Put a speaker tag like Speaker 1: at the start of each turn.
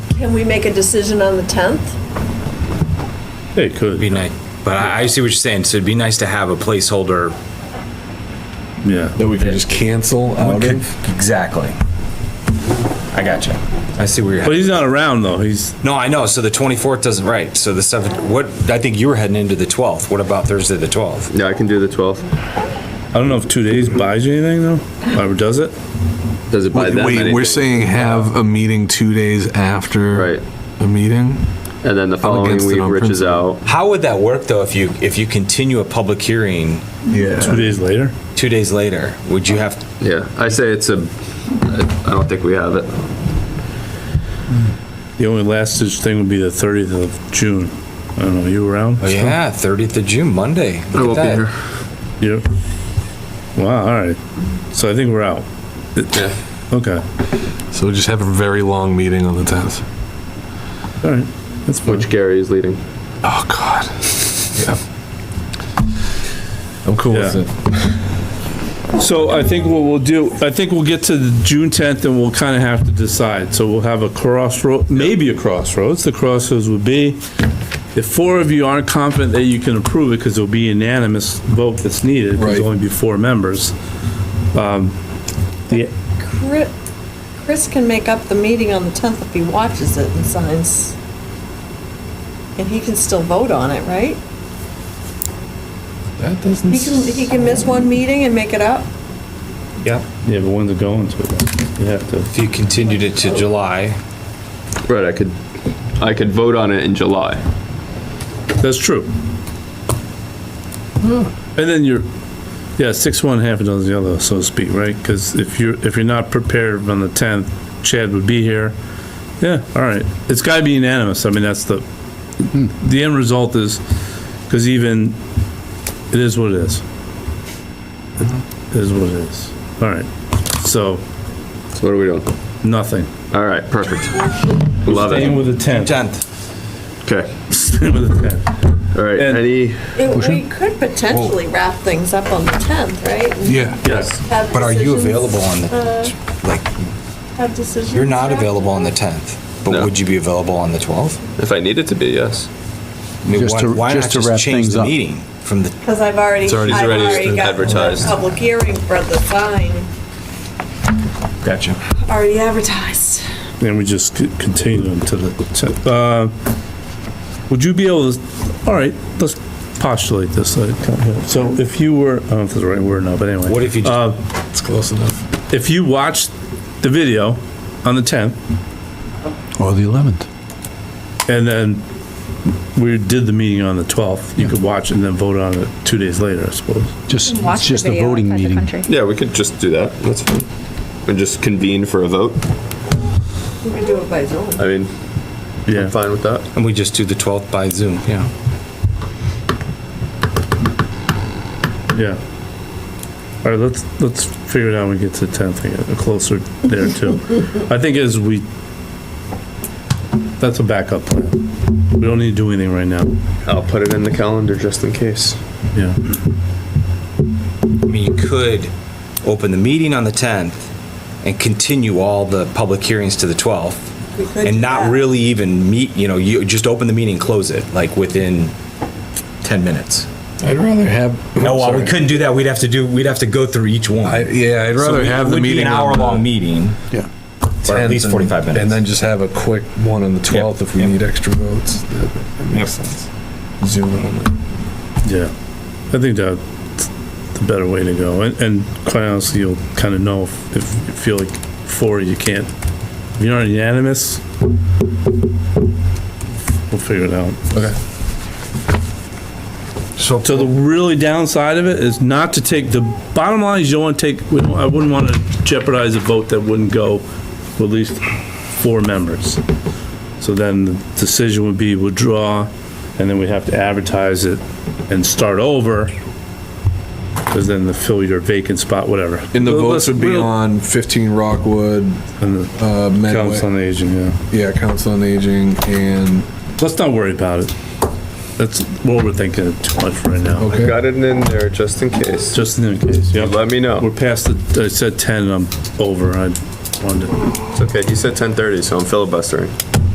Speaker 1: Can we make a decision on the 10th?
Speaker 2: It could.
Speaker 3: Be nice, but I, I see what you're saying. So it'd be nice to have a placeholder.
Speaker 2: Yeah.
Speaker 4: That we can just cancel out of?
Speaker 3: Exactly. I got you. I see where you're.
Speaker 2: But he's not around though. He's
Speaker 3: No, I know. So the 24th doesn't, right. So the 7th, what, I think you were heading into the 12th. What about Thursday, the 12th?
Speaker 5: Yeah, I can do the 12th.
Speaker 2: I don't know if two days buys you anything though, or does it?
Speaker 5: Does it buy that many?
Speaker 4: Wait, we're
Speaker 5: days?
Speaker 4: saying have a meeting two days after
Speaker 5: Right.
Speaker 4: a meeting?
Speaker 5: And then the following
Speaker 4: against it
Speaker 5: week,
Speaker 4: on
Speaker 5: Rich is out.
Speaker 3: How would that work though if you, if you continue a public hearing
Speaker 2: Two
Speaker 4: Yeah.
Speaker 2: days later.
Speaker 3: two days later? Would you have,
Speaker 5: Yeah, I say it's a, I don't think we have it.
Speaker 2: The only last such thing would be the 30th of June. I don't know. You around?
Speaker 3: oh yeah, 30th of June, Monday. Look
Speaker 5: I
Speaker 3: at
Speaker 5: won't be
Speaker 3: that.
Speaker 5: here.
Speaker 2: Yep. Wow. All right. So I think we're out.
Speaker 5: Yeah.
Speaker 2: Okay.
Speaker 4: So just have a very long meeting on the 10th.
Speaker 2: All right. That's fine.
Speaker 5: Which Gary is leading.
Speaker 4: Oh, God. Yeah. I'm cool with
Speaker 2: Yeah.
Speaker 4: it.
Speaker 2: So I think what we'll do, I think we'll get to the June 10th and we'll kind of have to decide. So we'll have a crossroad, maybe a crossroads. The crossroads would be if four of you aren't confident that you can approve it because it'll be unanimous vote that's needed. 'cause
Speaker 4: Right.
Speaker 2: There'll only be four members. Um, The
Speaker 1: Chri- Chris can make up the meeting on the 10th if he watches it and signs. And he can still vote on it, right?
Speaker 4: That doesn't.
Speaker 1: He can, he can miss one meeting and make it up?
Speaker 3: Yeah.
Speaker 2: Yeah, but when's it going to? You have to.
Speaker 3: If you continued it to July,
Speaker 5: Right, I could, I could vote on it in July.
Speaker 2: That's true. And then you're, yeah, six one, half a dozen the other, so to speak, right? Because if you're, if you're not prepared on the tenth, Chad would be here. Yeah, all right. It's gotta be unanimous. I mean, that's the, the end result is, because even, it is what it is. It is what it is. All right. So,
Speaker 5: So what are we doing?
Speaker 2: nothing.
Speaker 5: All right, perfect. Love
Speaker 2: Staying
Speaker 5: it.
Speaker 2: with the tenth.
Speaker 3: 10th.
Speaker 5: Okay,
Speaker 2: Staying with the tenth.
Speaker 5: all right,
Speaker 2: And-
Speaker 5: any,
Speaker 1: It- We could potentially wrap things up on the 10th, right? And
Speaker 4: Yeah.
Speaker 2: Yes.
Speaker 1: have
Speaker 3: But are you
Speaker 1: decisions,
Speaker 3: available on
Speaker 1: uh,
Speaker 3: the, like,
Speaker 1: Have decisions.
Speaker 3: you're not
Speaker 1: wrapped
Speaker 3: available on the
Speaker 1: up?
Speaker 3: 10th, but
Speaker 5: No.
Speaker 3: would you be available on the 12th?
Speaker 5: if I needed to be, yes.
Speaker 3: I mean,
Speaker 6: Just
Speaker 3: why,
Speaker 6: to-
Speaker 3: why
Speaker 6: just
Speaker 3: not
Speaker 6: to
Speaker 3: just
Speaker 6: wrap
Speaker 3: change
Speaker 6: things
Speaker 3: the
Speaker 6: up.
Speaker 3: meeting from the,
Speaker 1: Because I've already, I've
Speaker 4: It's already- it's
Speaker 5: already
Speaker 1: already got the
Speaker 5: advertised.
Speaker 1: public hearing for the sign,
Speaker 3: gotcha.
Speaker 1: already advertised.
Speaker 2: And we just c- continue until the, tenth. uh, would you be able to, all right, let's postulate this. uh, So if you were, I don't know if that's the right word now, but anyway.
Speaker 3: What if you just-
Speaker 2: uh,
Speaker 4: It's close enough.
Speaker 2: If you watched the video on the 10th
Speaker 6: Or the 11th.
Speaker 2: and then we did the meeting on the 12th, you could watch it and then vote on it two days later, I suppose.
Speaker 6: Just,
Speaker 7: Watch
Speaker 6: it's just
Speaker 7: the
Speaker 6: a
Speaker 7: video
Speaker 6: voting
Speaker 7: outside the
Speaker 6: meeting.
Speaker 7: country.
Speaker 5: Yeah, we could just do that, that's fine. And just convene for a vote,
Speaker 1: We could do it by Zoom.
Speaker 5: I mean, I'm
Speaker 2: Yeah.
Speaker 5: fine with that.
Speaker 3: And we just do the 12th by Zoom, yeah.
Speaker 2: Yeah. All right, let's, let's figure it out when we get to the 10th, and get closer there too. I think as we, that's a backup plan. We don't need to do anything right now.
Speaker 5: I'll put it in the calendar just in case.
Speaker 2: Yeah,
Speaker 3: I mean, you could open the meeting on the 10th and continue all the public hearings to the 12th
Speaker 1: We could do
Speaker 3: and not
Speaker 1: that.
Speaker 3: really even meet, you know, you just open the meeting, close it, like within 10 minutes.
Speaker 4: I'd rather have.
Speaker 3: No, well, we
Speaker 4: Sorry.
Speaker 3: couldn't do that. We'd have to do, we'd have to go through each one.
Speaker 4: I, yeah, I'd
Speaker 3: So
Speaker 4: rather
Speaker 3: it
Speaker 4: have the
Speaker 3: would be
Speaker 4: meeting.
Speaker 3: An
Speaker 4: on
Speaker 3: hour
Speaker 4: the
Speaker 3: long meeting,
Speaker 6: Yeah.
Speaker 3: or at
Speaker 4: 10th
Speaker 3: least
Speaker 4: and-
Speaker 3: 45 minutes.
Speaker 4: And then just have a quick one on the 12th if we
Speaker 3: Yep.
Speaker 4: need extra votes. That that
Speaker 3: Yep.
Speaker 4: makes sense. Zoom in on it.
Speaker 2: yeah. I think that's the better way to go. And, and quite honestly, you'll kind of know if, if you feel like four, you can't, if you're not unanimous, we'll figure it out.
Speaker 4: Okay. So,
Speaker 2: So the really downside of it is not to take, the bottom line is you don't want to take, we don't- I wouldn't want to jeopardize a vote that wouldn't go with at least four members. So then the decision would be withdraw, and then we'd have to advertise it and start over. Because then the fill your vacant spot, whatever.
Speaker 4: and the
Speaker 2: Let's-
Speaker 4: votes would be
Speaker 2: we'll-
Speaker 4: on 15 Rockwood,
Speaker 2: and the Council
Speaker 4: uh, Medway.
Speaker 2: on Aging, yeah.
Speaker 4: Yeah, Council on Aging and,
Speaker 2: Let's not worry about it. That's, we're overthinking it too much right now.
Speaker 4: okay.
Speaker 5: Got it in there just in case.
Speaker 2: Just in case, yeah.
Speaker 5: Let me
Speaker 2: We're
Speaker 5: know.
Speaker 2: past the, I said 10, and I'm over, I wanted to.
Speaker 5: It's okay, he said 10:30, so I'm filibustering.